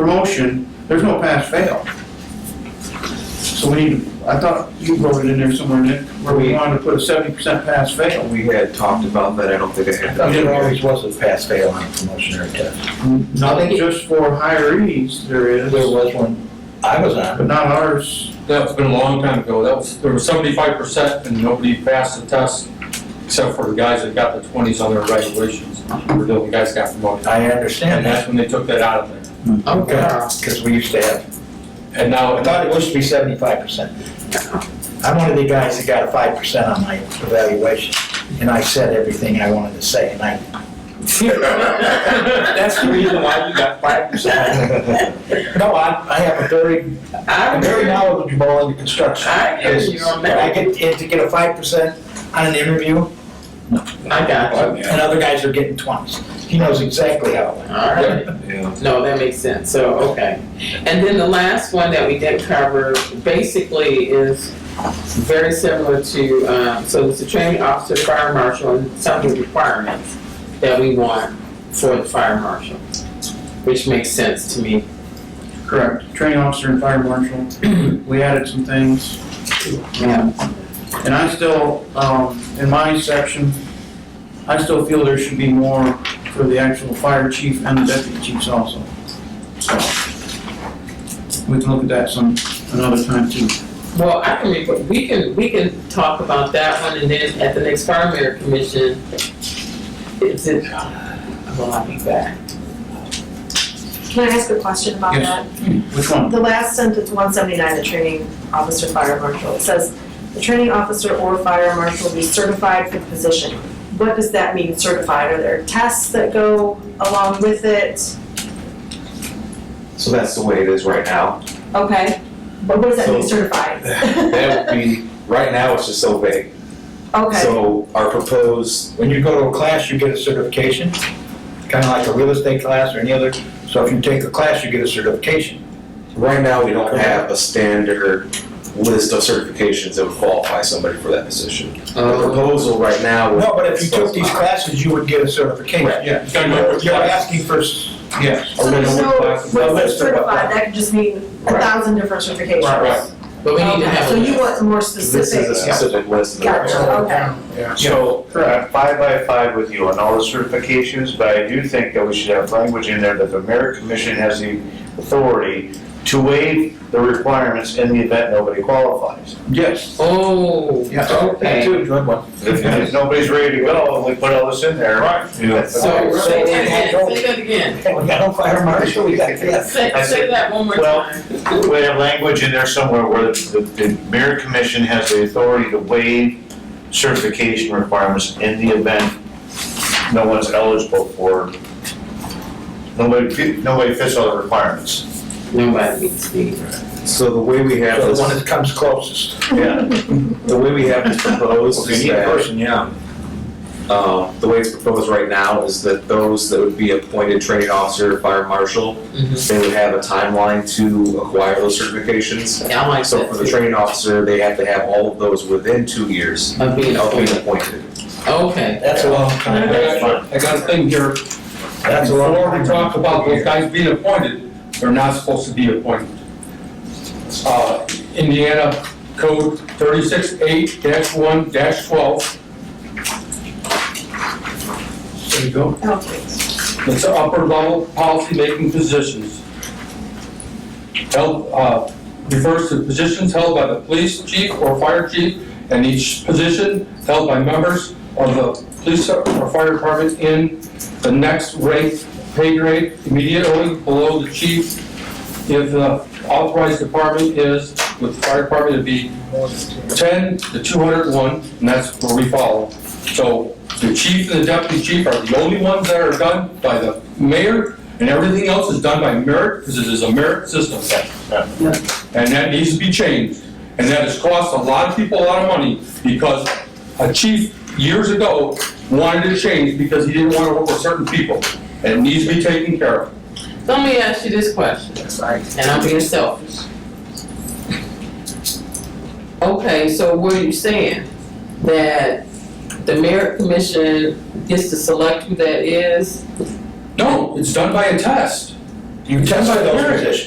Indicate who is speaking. Speaker 1: promotion, there's no pass fail. So we, need. I thought you wrote it in there somewhere, Nick, where we wanted to put a seventy percent pass fail.
Speaker 2: We had talked about that, I don't think I had.
Speaker 1: I mean, there always
Speaker 2: was a pass fail on promotionary test.
Speaker 1: Not just for hirees, there is,
Speaker 2: was one, I was on.
Speaker 1: but not ours.
Speaker 3: That's been a long time ago. That was, there was seventy-five percent and nobody passed the test except for the guys that got the twenties on their evaluations, or the other guys got promoted.
Speaker 2: I
Speaker 3: And
Speaker 2: understand
Speaker 3: that's when they took that out of there.
Speaker 2: Because we used to have,
Speaker 3: And now,
Speaker 2: I thought it used to be seventy-five percent. I'm one of the guys that got a five percent on my evaluation, and I said everything I wanted to say, and I.
Speaker 3: that's the reason why you got five
Speaker 2: No, I, I have a very, I'm very knowledgeable in the construction.
Speaker 4: I give you a
Speaker 2: But I
Speaker 4: minute.
Speaker 2: get, and to get a five percent on an interview,
Speaker 4: I got you.
Speaker 2: and other guys are getting twenties. He knows exactly how it went.
Speaker 4: All right. No, that makes sense, so, okay. And then the last one that we didn't cover basically is very similar to, um, so it's a training officer, fire marshal, and some of the requirements that we want for the fire marshal, which makes sense to me.
Speaker 1: Correct. Training officer and fire marshal. We added some things.
Speaker 4: Yeah.
Speaker 1: And I still, um, in my section, I still feel there should be more for the actual fire chief and the deputy chiefs also. So, We can look at that some, another time too.
Speaker 4: Well, I can, re- we can, we can talk about that one, and then at the next fire mayor commission, is it, well, I'll be back.
Speaker 5: Can I ask a question about
Speaker 1: Yes.
Speaker 5: that?
Speaker 1: Which one?
Speaker 5: The last sentence, one seventy-nine, the training officer, fire marshal, it says, the training officer or fire marshal be certified for the position. What does that mean, certified? Are there tests that go along with it?
Speaker 6: So that's the way it is right now.
Speaker 5: Okay, but what does that mean,
Speaker 6: So-
Speaker 5: certified?
Speaker 6: That would be, right now it's just so vague.
Speaker 5: Okay,
Speaker 6: So our proposed,
Speaker 2: When you go to a class, you get a certification, kind of like a real estate class or any other. So if you take a class, you get a certification.
Speaker 6: right now we don't have a standard list of certifications that would qualify somebody for that position. The
Speaker 4: Oh.
Speaker 5: Oh.
Speaker 6: proposal right now would.
Speaker 2: No, but if you took these classes, you would get a certification.
Speaker 6: Right.
Speaker 1: Yeah,
Speaker 2: You're asking for, s-
Speaker 1: yes.
Speaker 5: so there's no, what's
Speaker 2: Well, let's-
Speaker 5: certified, that could just mean a
Speaker 6: Right.
Speaker 5: thousand different certifications.
Speaker 3: Right, right.
Speaker 4: But we need to
Speaker 5: Okay,
Speaker 4: have a.
Speaker 5: So you want more
Speaker 6: This is a
Speaker 5: specific,
Speaker 6: specific list.
Speaker 5: gotcha, okay.
Speaker 7: So, I'm five by five with you on all the certifications, but I do think that we should have language in there that the merit commission has the authority to waive the requirements in the event nobody qualifies.
Speaker 1: Yes.
Speaker 4: Oh,
Speaker 1: Yeah.
Speaker 4: okay.
Speaker 1: Two, good one.
Speaker 7: If, if nobody's ready to go, and we put all this in there. Right.
Speaker 4: So,
Speaker 2: So-
Speaker 4: say that again, say that again.
Speaker 2: we got a fire marshal, we got this.
Speaker 4: Say, say that one more
Speaker 7: Well-
Speaker 4: time.
Speaker 7: We have language in there somewhere where the, the merit commission has the authority to waive certification requirements in the event no one's eligible for, nobody, fit- nobody fits all the requirements.
Speaker 4: Nobody needs to be.
Speaker 6: So the way we have
Speaker 2: So
Speaker 6: this,
Speaker 2: the one that comes closest.
Speaker 7: Yeah.
Speaker 6: the way we have this proposed is that.
Speaker 2: yeah.
Speaker 6: Um, the way it's proposed right now is that those that would be appointed training officer, fire marshal,
Speaker 4: Mhm.
Speaker 6: they would have a timeline to acquire those certifications.
Speaker 4: I like
Speaker 6: So for the
Speaker 4: that
Speaker 6: training officer, they have to have all of those within two years
Speaker 4: too. Of being
Speaker 6: of being appointed.
Speaker 4: appointed. Okay.
Speaker 2: That's a long
Speaker 3: I
Speaker 2: time.
Speaker 3: got- I got a thing here.
Speaker 2: That's a long
Speaker 3: Before
Speaker 2: time.
Speaker 3: we talk about those guys being appointed, they're not supposed to be appointed. Uh, Indiana Code thirty-six eight one twelve,
Speaker 1: There you go.
Speaker 5: Okay.
Speaker 3: it's the upper level policy-making positions. Held, uh, refers to positions held by the police chief or fire chief, and each position held by members of the police or fire department in the next rate, pay grade immediately below the chief if the authorized department is, with the fire department, it'd be ten to two hundred and one, and that's where we follow. So the chief and the deputy chief are the only ones that are done by the mayor, and everything else is done by merit, because it is a merit system. And that needs to be changed, and that has cost a lot of people a lot of money, because a chief years ago wanted to change because he didn't want to work with certain people, and it needs to be taken care of.
Speaker 4: Let me ask you this question. And I'm being selfish. Okay, so what are you saying? That the merit commission gets to select who that is?
Speaker 3: No, it's done by a test. You test for those
Speaker 8: Right.
Speaker 3: positions.